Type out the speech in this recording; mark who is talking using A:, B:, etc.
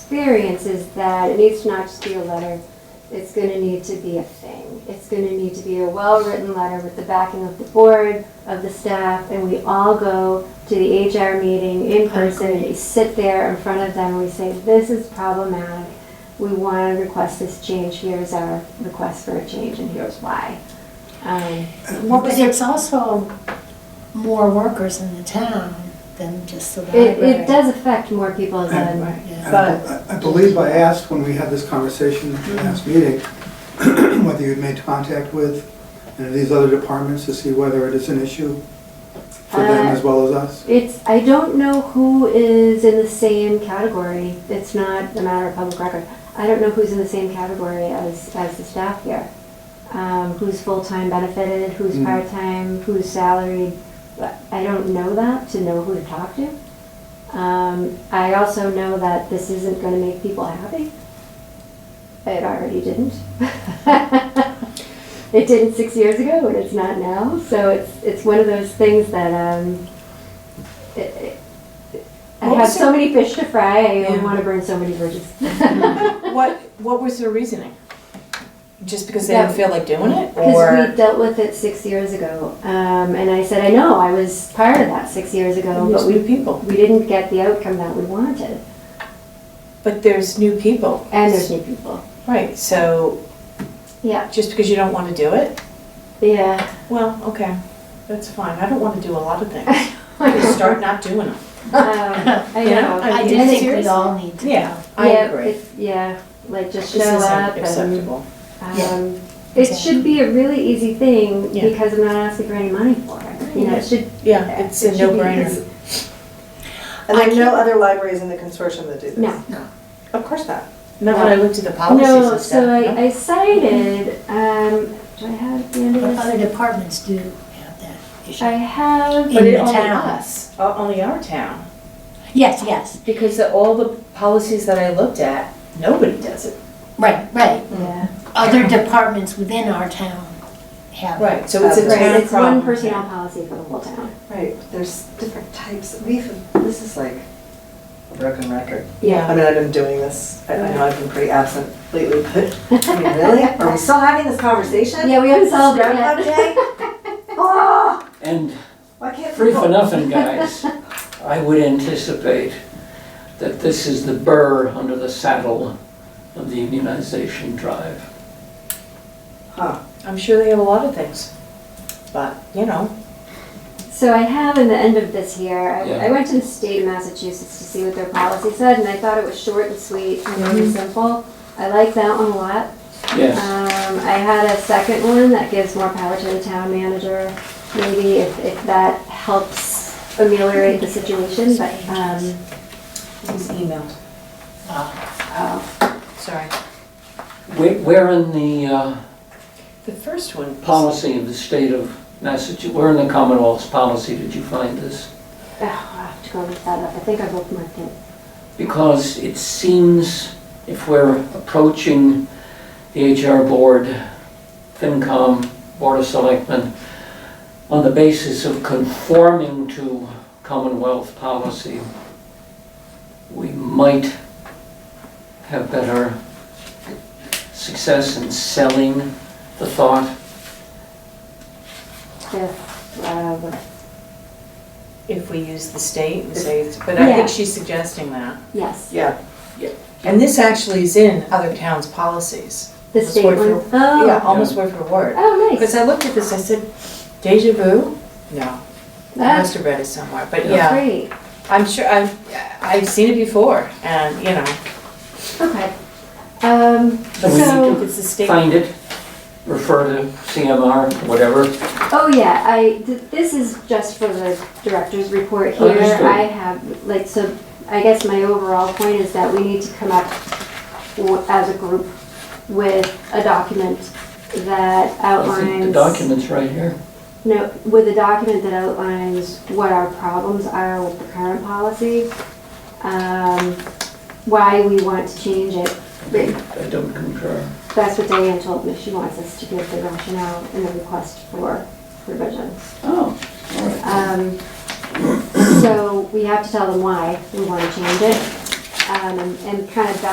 A: experience is that it needs to not just be a letter, it's gonna need to be a thing. It's gonna need to be a well-written letter with the backing of the board, of the staff, and we all go to the HR meeting in person, and we sit there in front of them, and we say, this is problematic. We wanna request this change, here's our request for a change, and here's why. Um,
B: Well, but it's also more workers in the town than just the
A: It,
B: library.
A: it does affect more people than,
B: Yeah.
C: And I I believe I asked when we had this conversation at the last meeting, whether you'd made contact with any of these other departments to see whether it is an issue for them
A: Uh,
C: as well as us.
A: It's, I don't know who is in the same category. It's not a matter of public record. I don't know who's in the same category as, as the staff here. Um, who's full-time benefited, who's
C: Mm.
A: part-time, who's salaried. But I don't know that to know who to talk to. Um, I also know that this isn't gonna make people happy. It already didn't. It didn't six years ago and it's not now, so it's, it's one of those things that, um, it- it- I
D: What
A: have
D: was
A: so
D: your-
A: many fish to fry, I
D: Yeah. Mm-hmm.
A: want to burn so many bridges.
D: What, what was their reasoning? Just because they didn't
A: That-
D: feel like doing it,
A: Because we
D: or?
A: dealt with it six years ago, um, and I said, I know, I was part of that six years ago,
D: There's
A: but we,
D: new people,
A: we didn't get the outcome that we wanted,
D: but there's new people.
A: and there's new people.
D: Right, so
A: Yeah,
D: just because you don't want to do it,
A: yeah.
D: well, okay, that's fine. I don't want to do a lot of things. Just start not doing them.
A: Um, I
D: You know,
A: know.
D: I
B: I
D: mean,
B: do
D: it's
B: think we
D: serious.
B: all need to
D: Yeah,
B: know.
D: I
A: Yeah,
D: agree.
A: it's- Yeah, like just
D: This
A: show
D: isn't
A: up and
D: acceptable.
B: Yeah.
A: Um, It should be a really easy thing
D: Yeah.
A: because I'm not asking for any money for it. You know, it should.
D: Yeah, it's
A: it
D: a
A: should be easy.
D: no-brainer.
E: And there are no other libraries in the consortium that do this?
A: No.
E: Of course not.
D: Not when I looked at the policies
A: No,
D: and
A: so
D: stuff. no?
A: I, I cited, um, do I have the end of
B: But
A: this?
B: Other departments do have that issue.
A: I have,
D: But
B: in
D: it
B: the
D: only
B: town.
D: us, o- Uh, only our town,
B: Yes, yes,
D: because the- all the policies that I looked at, nobody does it.
B: right, right.
A: yeah.
B: Other departments within our town have.
D: Right, so it's a
E: Right,
D: town
A: Right, it's one
D: problem.
A: personnel policy for the whole town.
E: Right, but there's different types. We've, this is like a broken record. I
D: Yeah,
E: mean, I've been doing this, I I know I've been pretty absent lately, but, I mean, really? Are we still having this conversation?
A: Yeah, we haven't solved it
E: Groundhog
A: yet.
E: Day? Oh,
F: And
E: why can't
F: free for
E: people?
F: nothing, guys, I would anticipate that this is the burr under the saddle of the unionization drive.
E: Huh,
D: I'm sure they have a lot of things, but, you know,
A: So I have in the end of this year, I,
F: Yeah.
A: I went to the state of Massachusetts to see what their policy said, and I thought it was short and sweet and really
D: Mm-hmm.
A: simple. I like that one a lot.
F: Yes,
A: Um, I had a second one that gives more power to the town manager, maybe if, if that helps ameliorate the situation, but, um,
D: it was emailed,
B: Uh,
A: oh,
D: sorry.
F: Where- we're in the uh,
D: The first one.
F: policy of the state of Massachusetts, where in the Commonwealth's policy did you find this?
A: I'll have to go look that up, I think I've opened my thing.
F: Because it seems if we're approaching the HR board, FinCom, Board of Selectmen, on the basis of conforming to Commonwealth policy, we might have better success in selling the thought.
A: If, uh,
D: If we use the state and say, it's- but I
A: Yeah.
D: think she's suggesting that.
A: yes,
E: yeah.
D: And this actually is in other towns' policies.
A: the
D: Almost
A: state
D: word
A: one.
D: for- Yeah,
A: Oh,
D: almost word for word.
A: oh,
D: Because
A: nice.
D: I looked at this, I said, deja vu? No, I must
A: That's
D: have read it somewhere, but yeah,
A: great,
D: I'm sure, I've, I've seen it before, and, you know.
A: okay. Um,
F: So we need
A: so.
D: It's the state.
F: Find it, refer to CMR, whatever.
A: Oh, yeah, I, th- this is just for the director's report here.
F: Understood.
A: I have, like, so, I guess my overall point is that we need to come up w- as a group with a document that
F: I think the
A: outlines.
F: document's right here.
A: No, with a document that outlines what our problems are with the current policy, um, why we want to change it. But
F: I don't concur.
A: That's what Diane told me, she wants us to give the rationale and the request for revisions.
F: Oh, all right.
A: Um, So we have to tell them why we want to change it. done and, and kind of back